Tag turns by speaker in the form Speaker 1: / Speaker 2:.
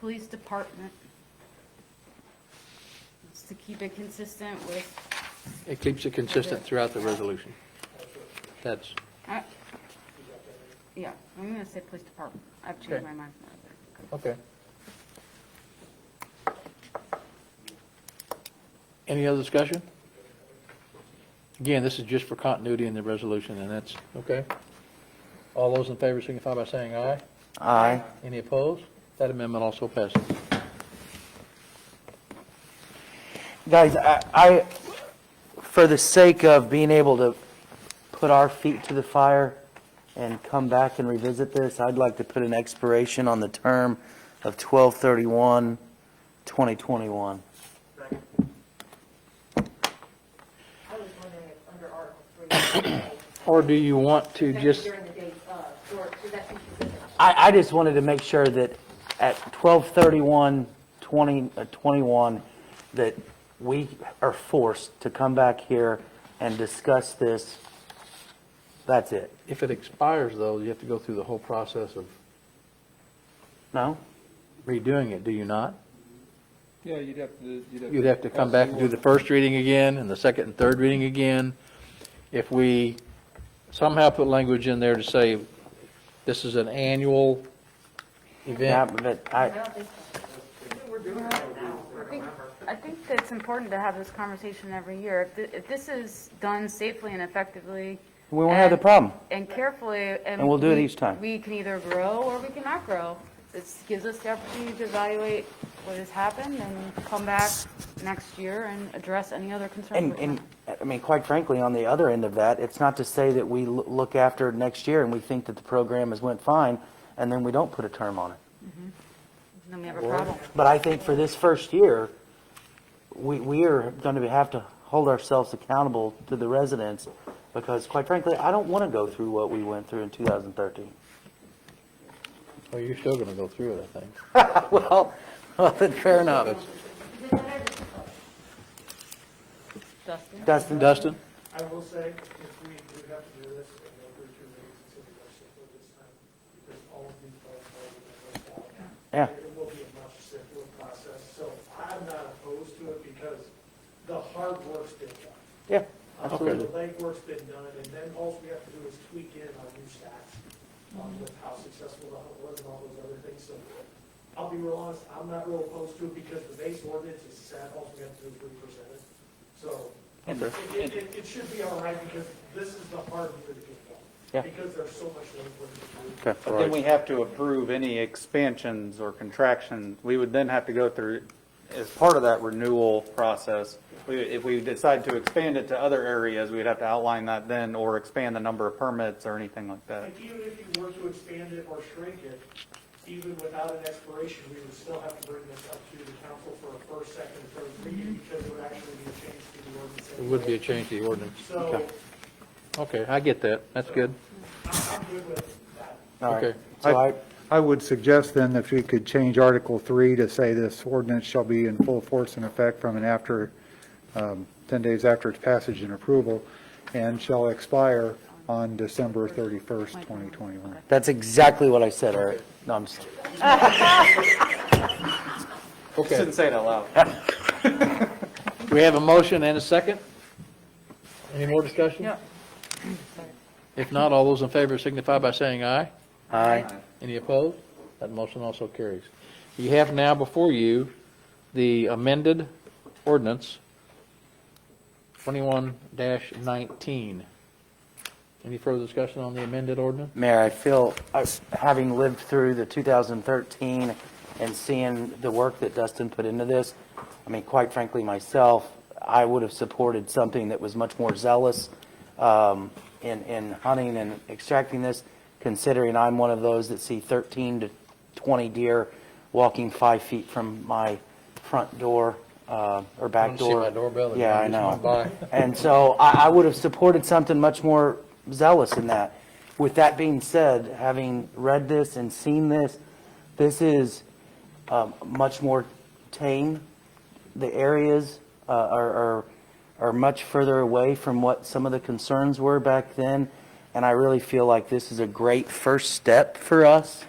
Speaker 1: police department. It's to keep it consistent with,
Speaker 2: It keeps it consistent throughout the resolution. That's,
Speaker 1: I, yeah, I'm gonna say police department. I've changed
Speaker 2: Okay.
Speaker 1: my mind.
Speaker 2: okay. Any other discussion? Again, this is just for continuity in the resolution, and that's, okay? All those in favor signify by saying aye.
Speaker 3: Aye.
Speaker 2: Any opposed? That amendment also passes.
Speaker 3: Guys, I, I, for the sake of being able to put our feet to the fire and come back and revisit this, I'd like to put an expiration on the term of 12/31, 2021.
Speaker 4: I was wondering if under Article 3,
Speaker 2: Or do you want to
Speaker 4: that's
Speaker 2: just,
Speaker 4: during the date of, or should that be consistent?
Speaker 3: I, I just wanted to make sure that at 12/31, 20, uh, 21, that we are forced to come back here and discuss this. That's it.
Speaker 2: if it expires, though, you have to go through the whole process of
Speaker 3: No?
Speaker 2: redoing it, do you not?
Speaker 5: Yeah, you'd have to, you'd have.
Speaker 2: You'd have to come back and do the first reading again, and the second and third reading again. If we somehow put language in there to say, this is an annual
Speaker 3: Yeah,
Speaker 2: event,
Speaker 3: but I,
Speaker 1: I think- I think that it's important to have this conversation every year. If thi- If this is done safely and effectively.
Speaker 3: we won't have the
Speaker 1: and-
Speaker 3: problem.
Speaker 1: And carefully, and.
Speaker 3: And we'll do it
Speaker 1: we-
Speaker 3: each time.
Speaker 1: We can either grow or we cannot grow. This gives us the opportunity to evaluate what has happened and come back next year and address any other concerns.
Speaker 3: And,
Speaker 1: we
Speaker 3: and,
Speaker 1: have.
Speaker 3: I mean, quite frankly, on the other end of that, it's not to say that we l- look after it next year and we think that the program has went fine, and then we don't put a term on it.
Speaker 1: Then we have a problem.
Speaker 3: But I think for this first year, we, we are going to have to hold ourselves accountable to the residents, because quite frankly, I don't want to go through what we went through in 2013.
Speaker 2: well, you're still going to go through it, I think.
Speaker 3: Well, well, then fair enough.
Speaker 1: Justin?
Speaker 3: Dustin,
Speaker 2: Dustin?
Speaker 6: I will say, if we do have to do this, and go through two readings, it's gonna be much simpler this time, because all of these votes are going to go out.
Speaker 3: Yeah.
Speaker 6: It will be a much simpler process, so I'm not opposed to it, because the hard work's been done.
Speaker 3: yeah,
Speaker 6: Um,
Speaker 3: absolutely.
Speaker 6: The legwork's been done, and then all we have to do is tweak in our new stats, um, with how successful the hunt was and all those other things, so I'll be real honest, I'm not real opposed to it, because the base ordinance is set, all we have to do is represent it, so it, it, it- it should be all right, because this is the hard year to get going.
Speaker 3: Yeah.
Speaker 6: Because there's so much legwork to do.
Speaker 3: Okay.
Speaker 7: But then we have to approve any expansions or contractions. We would then have to go through, as part of that renewal process, we- if we decide to expand it to other areas, we'd have to outline that then, or expand the number of permits or anything like that.
Speaker 6: And even if you were to expand it or shrink it, even without an expiration, we would still have to bring this up to the council for a first, second, and third reading, because it would actually be a change to the ordinance.
Speaker 2: It would be a change to the ordinance.
Speaker 6: So,
Speaker 2: Okay, I get that, that's good.
Speaker 6: I'm good with that.
Speaker 3: All right.
Speaker 2: Okay.
Speaker 3: So I,
Speaker 8: I would suggest then if we could change Article 3 to say this ordinance shall be in full force and effect from and after, um, 10 days after its passage and approval, and shall expire on December 31st, 2021.
Speaker 3: that's exactly what I said, all right. No, I'm just
Speaker 2: Okay,
Speaker 7: Shouldn't say it out loud.
Speaker 2: we have a motion and a second? Any more discussion?
Speaker 1: Yeah.
Speaker 2: If not, all those in favor signify by saying aye.
Speaker 3: Aye.
Speaker 2: Any opposed? That motion also carries. You have now before you the amended ordinance 21-19. Any further discussion on the amended ordinance?
Speaker 3: Mayor, I feel, I- having lived through the 2013 and seeing the work that Dustin put into this, I mean, quite frankly, myself, I would have supported something that was much more zealous um, in, in hunting and extracting this, considering I'm one of those that see 13 to 20 deer walking five feet from my front door uh, or
Speaker 2: I
Speaker 3: back
Speaker 2: don't see
Speaker 3: door.
Speaker 2: my doorbell that
Speaker 3: Yeah, I
Speaker 2: just went
Speaker 3: know.
Speaker 2: by.
Speaker 3: And so I, I would have supported something much more zealous in that. With that being said, having read this and seen this, this is um, much more tame. The areas uh, are, are, are much further away from what some of the concerns were back then. And I really feel like this is a great first step for us